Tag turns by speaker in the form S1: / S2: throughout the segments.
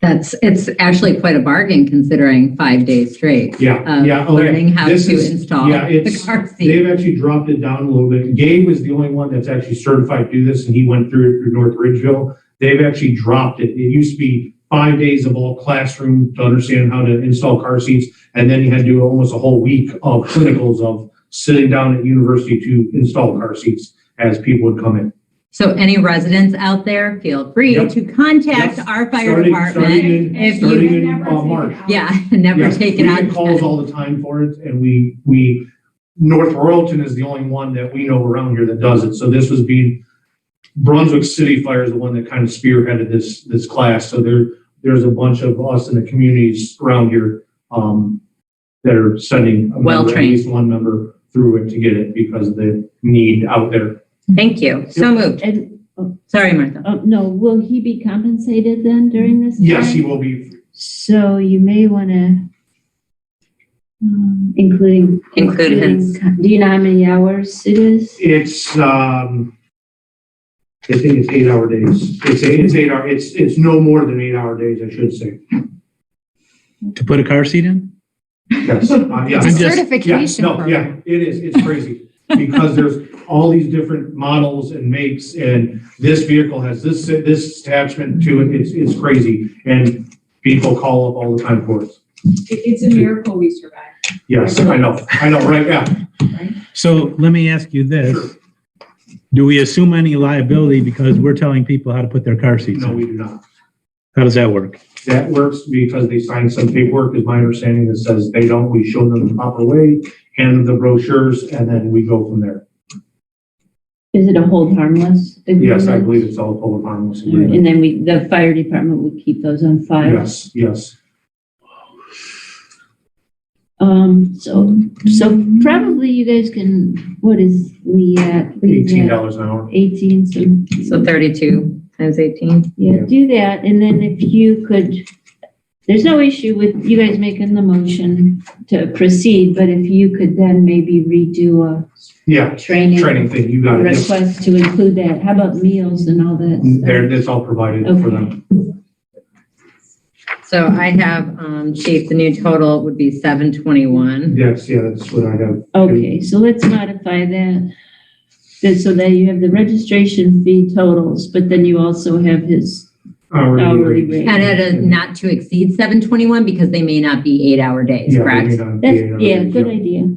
S1: That's, it's actually quite a bargain considering five days straight
S2: Yeah,
S1: of
S2: yeah. okay.
S1: uh, learning how to
S2: This is-
S1: install
S2: yeah,
S1: the
S2: it's-
S1: car seat.
S2: They've actually dropped it down a little bit. Gabe was the only one that's actually certified to do this, and he went through it through North Ridgeville. They've actually dropped it. It used to be five days of all classroom to understand how to install car seats, and then you had to do almost a whole week of clinicals of sitting down at university to install car seats as people would come in.
S1: So any residents out there, feel free
S2: Yep.
S1: to contact
S2: Yep.
S1: our fire
S2: Starting, starting
S1: department.
S2: in,
S1: if you-
S2: starting in uh, March.
S1: Yeah, never
S2: Yes,
S1: take it
S2: We get
S1: out.
S2: calls all the time for it, and we, we, North Royalton is the only one that we know around here that does it. So this was being, Brunswick City Fire is the one that kind of spearheaded this, this class. So there, there's a bunch of us in the communities around here, um, that are sending. a member, at
S1: Well-trained.
S2: least One member through it to get it because of the need out there.
S1: Thank you. So moved.
S3: And,
S1: Sorry, Martha.
S3: oh, no, will he be compensated then during this time?
S2: Yes, he will be,
S3: So you may want to, um, including.
S1: Include his-
S3: including- Do you know how many hours it is?
S2: it's, um, I think it's eight hour days. It's, eight- it's eight hour, it's, it's no more than eight hour days, I should say.
S4: To put a car seat in?
S2: Yes, uh, yeah.
S5: It's a
S4: I'm just-
S2: Yeah,
S5: certification
S2: no, yeah,
S5: program.
S2: it is, it's crazy, because there's all these different models and makes, and this vehicle has this, this attachment to it, it's, it's crazy, and people call up all the time for us.
S6: It- It's a miracle we survived.
S2: Yes, I know, I know, right, yeah,
S4: So let me ask you this. Do we assume any liability because we're telling people how to put their car seats
S2: no,
S4: in?
S2: we do not.
S4: How does that work?
S2: That works because they signed some paperwork, is my understanding, that says they don't, we show them the proper way, hand them the brochures, and then we go from there.
S3: Is it a hold harmless?
S2: Yes, I
S3: agreement?
S2: believe it's all public harmless agreement.
S3: And then we, the fire department would keep those on file.
S2: Yes, yes.
S3: Um, so, so probably you guys can, what is Lee at? Lee's
S2: Eighteen
S3: at
S2: dollars an hour.
S3: Eighteen, some.
S1: So 32 times 18.
S3: Yeah, do that, and then if you could, there's no issue with you guys making the motion to proceed, but if you could then maybe redo
S2: Yeah,
S3: a training
S2: training thing, you got it. Yep.
S3: request to include that, how about meals and all that? stuff?
S2: There, that's all provided for them.
S1: So I have, um, chief, the new total would be 721.
S2: Yes, yeah, that's what I have.
S3: Okay, so let's modify that, that- so that you have the registration fee totals, but then you also have his hourly
S2: Hourly.
S3: rate.
S1: And it is not to exceed 721 because they may not be eight hour days,
S2: Yeah,
S1: correct?
S2: maybe not
S3: That's,
S2: the
S3: yeah,
S2: hourly,
S3: good
S2: yeah.
S3: idea.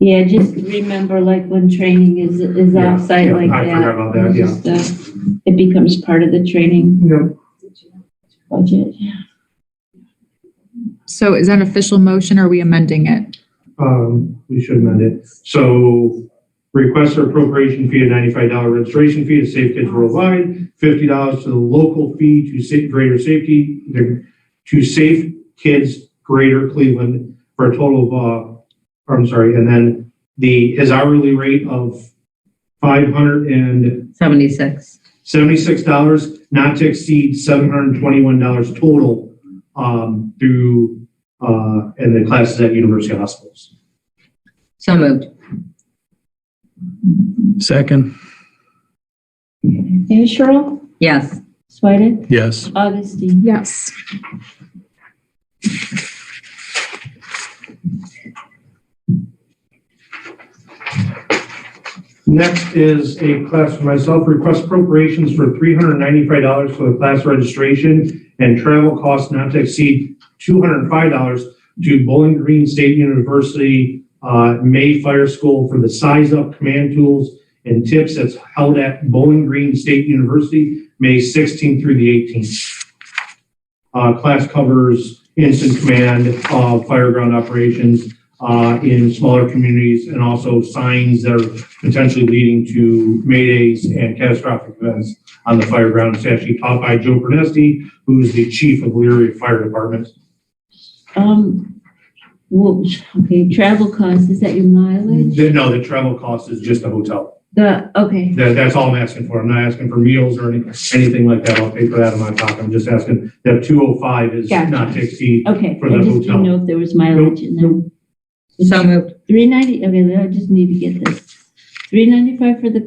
S3: Yeah, just remember like when training is, is
S2: Yeah,
S3: outside
S2: yeah,
S3: like that.
S2: I forgot about that, yeah.
S3: just, uh, It becomes part of the training
S2: Yep.
S3: budget.
S5: So is that an official motion or are we amending it?
S2: Um, we should amend it. So request for appropriation fee, a ninety-five dollar registration fee to Safe Kids Worldwide, fifty dollars to the local fee to sa- greater safety, to Safe Kids Greater Cleveland for a total of, uh, I'm sorry, and then the, his hourly rate of five hundred and
S1: 76.
S2: seventy-six dollars, not to exceed seven hundred and twenty-one dollars total, um, through, uh, and the classes at university hospitals.
S1: So moved.
S4: Second,
S3: And Cheryl,
S1: Yes.
S3: Swedek,
S4: yes.
S3: Augustine.
S5: Yes.
S2: Next is a class for myself, request appropriations for three hundred and ninety-five dollars for the class registration and travel costs not to exceed two hundred and five dollars to Bowling Green State University, uh, May Fire School for the size up command tools and tips that's held at Bowling Green State University, May sixteenth through the eighteenth. Uh, class covers instant command of fire ground operations, uh, in smaller communities and also signs that are potentially leading to maydays and catastrophic events on the fire ground. It's actually taught by Joe Pernesti, who's the chief of Leary Fire Department.
S3: Um, well, okay, travel costs, is that your mileage?
S2: The- No, the travel cost is just the hotel.
S3: The, okay,
S2: That, that's all I'm asking for. I'm not asking for meals or any, anything like that. I'll pay for that in my pocket. I'm just asking that two oh five is
S3: Gotcha.
S2: not to exceed.
S3: okay,
S2: For the
S3: I just didn't
S2: hotel.
S3: know if there was mileage in there.
S1: So moved.
S3: Three ninety, okay, I just need to get this. Three ninety-five for the